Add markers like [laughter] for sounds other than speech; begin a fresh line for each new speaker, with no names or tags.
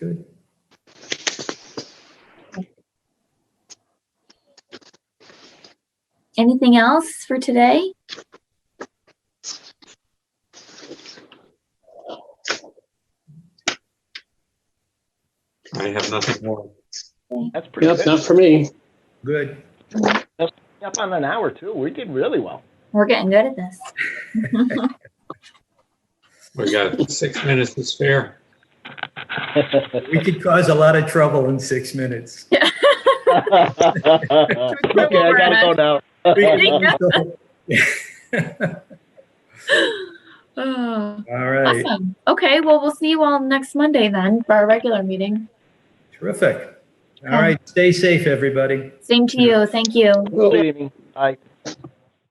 Good.
Anything else for today?
I have nothing more.
That's pretty
Yep,
good.
not for me.
Good.
Up on an hour too. We did really [laughs] well.
We're getting good at this.
We got six minutes to spare.
We could cause a lot of trouble in six minutes.
okay, I gotta go now.
We
[laughs]
Yeah.
could-
Oh,
All right,
Awesome. Okay, well, we'll see you all next Monday then for our regular meeting.
terrific. All right, stay safe, everybody.
Same to you. Thank you.
Good evening. Bye.